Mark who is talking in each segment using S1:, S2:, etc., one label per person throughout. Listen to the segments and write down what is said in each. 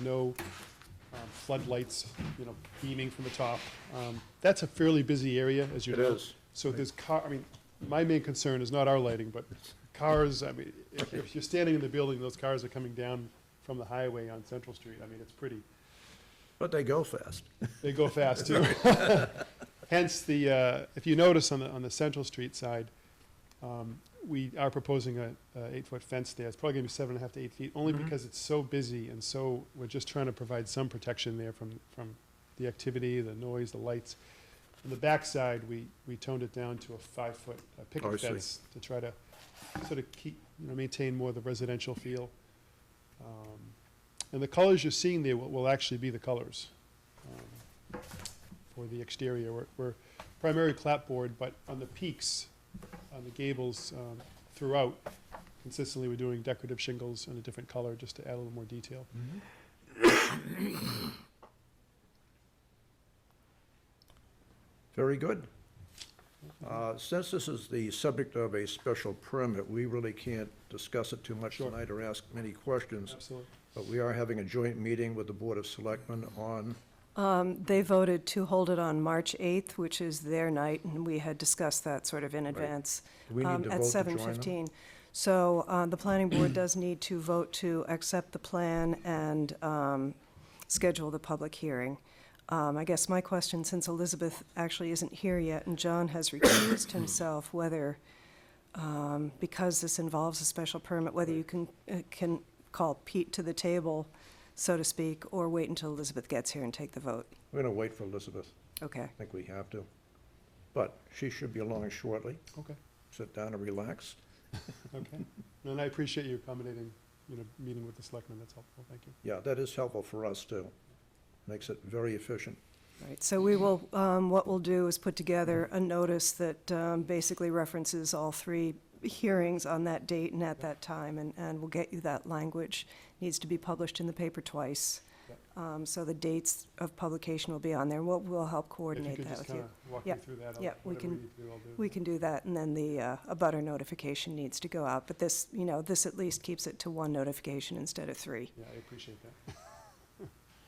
S1: no um, floodlights, you know, beaming from the top. Um, That's a fairly busy area, as you
S2: It
S1: know.
S2: is.
S1: So there's car, I mean, my main concern is not our lighting, but cars, I mean, if- if you're standing in the building, those cars are coming down from the highway on Central Street. I mean, it's pretty,
S2: But they go fast.
S1: they go fast too. Hence the, uh, if you notice on the, on the Central Street side, um, we are proposing a, a eight-foot fence there. It's probably gonna be seven and a half to eight feet, only because it's so busy and so, we're just trying to provide some protection there from, from the activity, the noise, the lights. On the backside, we, we toned it down to a five-foot uh,
S2: Oh, I
S1: picket
S2: see.
S1: fence to try to sort of keep, you know, maintain more of the residential feel. Um, And the colors you're seeing there will, will actually be the colors um, for the exterior. We're, we're primary clapboard, but on the peaks, on the gables um, throughout, consistently we're doing decorative shingles in a different color, just to add a little more detail.
S2: Very good. Uh, Since this is the subject of a special permit, we really can't discuss it too much
S1: Sure.
S2: tonight or ask many questions,
S1: Absolutely.
S2: but we are having a joint meeting with the Board of Selectmen on,
S3: Um, They voted to hold it on March 8th, which is their night, and we had discussed that sort of in advance.
S2: Do we need
S3: um,
S2: to vote to join them?
S3: At 7:15. So uh, the planning board does need to vote to accept the plan and um, schedule the public hearing. Um, I guess my question, since Elizabeth actually isn't here yet and John has recused himself, whether, um, because this involves a special permit, whether you can, uh, can call Pete to the table, so to speak, or wait until Elizabeth gets here and take the vote.
S2: we're going to wait for Elizabeth.
S3: Okay.
S2: I think we have to. But she should be along shortly.
S1: Okay,
S2: Sit down and relax.
S1: okay. And I appreciate you accommodating, you know, meeting with the selectmen. That's helpful. Thank you.
S2: Yeah, that is helpful for us, too. Makes it very efficient.
S3: Right, so we will, um, what we'll do is put together a notice that um, basically references all three hearings on that date and at that time, and, and we'll get you that language. Needs to be published in the paper twice. Um, So the dates of publication will be on there. We'll, we'll help coordinate that
S1: If
S3: with
S1: you could just kind
S3: you.
S1: of walk me
S3: Yeah,
S1: through that, I'll-
S3: yeah, we
S1: whatever we
S3: can-
S1: need to do, I'll do.
S3: We can do that, and then the, uh, a butter notification needs to go out. But this, you know, this at least keeps it to one notification instead of three.
S1: Yeah, I appreciate that.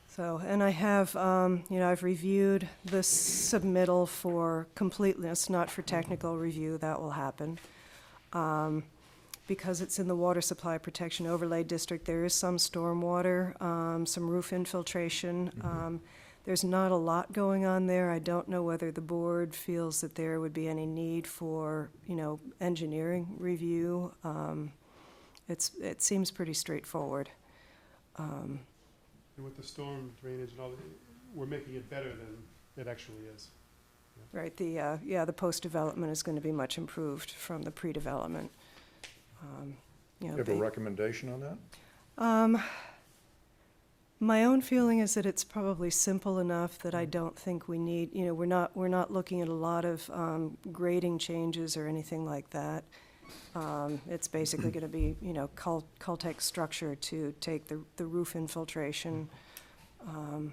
S3: So, and I have, um, you know, I've reviewed the submittal for completeness, not for technical review, that will happen. Um, Because it's in the Water Supply Protection Overlay District, there is some stormwater, um, some roof infiltration. Um, There's not a lot going on there. I don't know whether the board feels that there would be any need for, you know, engineering review. Um, It's, it seems pretty straightforward.
S1: And with the storm drainage and all, that, we're making it better than it actually is.
S3: Right, the, uh, yeah, the post-development is going to be much improved from the pre-development. Um, you know,
S2: You have a
S3: ba-
S2: recommendation on that?
S3: Um, My own feeling is that it's probably simple enough that I
S2: Mm-hmm.
S3: don't think we need, you know, we're not, we're not looking at a lot of um, grading changes or anything like that. Um, It's basically going to be, you know, Col- Caltech structure to take the the roof infiltration.
S2: Mm-hmm.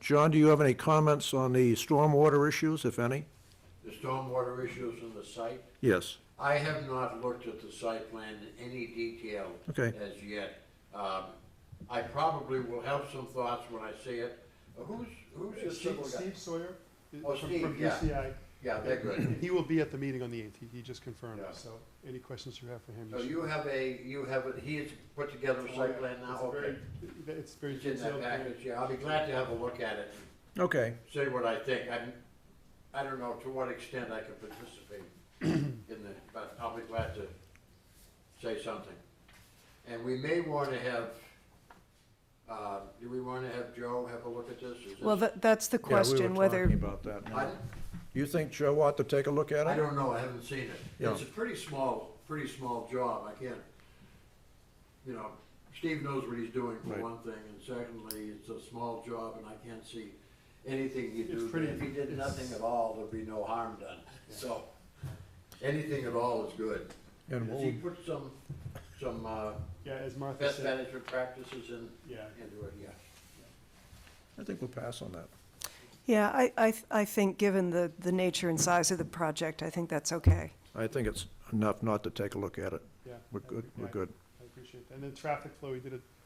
S2: John, do you have any comments on the stormwater issues, if any?
S4: The stormwater issues in the site,
S2: Yes.
S4: I have not looked at the site plan in any detail
S2: Okay.
S4: as yet. Um, I probably will have some thoughts when I see it. Who's, who's the
S1: Steve
S4: civil guy?
S1: Steve Sawyer? i-
S4: Oh,
S1: from-
S4: Steve,
S1: From
S4: yeah.
S1: UCI.
S4: Yeah, they're good.
S1: He will be at the meeting on the eighth, he just confirmed,
S4: Yeah.
S1: so any questions you have for him?
S4: So
S1: should-
S4: you have a, you have, a he has put together a
S1: Oh, yeah.
S4: site plan now?
S1: It's a
S4: Okay.
S1: very- It's very
S4: It's in that
S1: detailed.
S4: package, yeah. I'll be glad to have a look at it,
S2: Okay,
S4: and see what I think. I'm, I don't know to what extent I can participate in the, but I'll be glad to say something. And we may want to have, uh, do we want to have Joe have a look at this? Is
S3: Well,
S4: this-
S3: that- that's the
S2: yeah, we
S3: question,
S2: were
S3: whether,
S2: talking about that now.
S4: I,
S2: You think Joe ought to take a look at
S4: I
S2: it?
S4: don't know, I haven't seen it.
S2: Yeah.
S4: It's a pretty small, pretty small job, I can't, you know, Steve knows what he's doing for
S2: Right.
S4: one thing, and secondly, it's a small job, and I can't see anything he
S1: It's
S4: do.
S1: pretty-
S4: there. If he did nothing at all, there'd be no harm done, so, anything at all is good.
S2: And
S4: Does he
S2: we'll,
S4: put some, some, uh,
S1: Yeah, as Martha
S4: best
S1: said,
S4: management practices in,
S1: yeah,
S4: into it, yeah.
S2: I think we'll pass on that.
S3: Yeah, I, I, th- I think, given the, the nature and size of the project, I think that's okay.
S2: I think it's enough not to take a look at it.
S1: yeah.
S2: We're
S1: I
S2: good,
S1: agree.
S2: we're
S1: Yeah,
S2: good.
S1: I appreciate that. And then traffic flow, he did a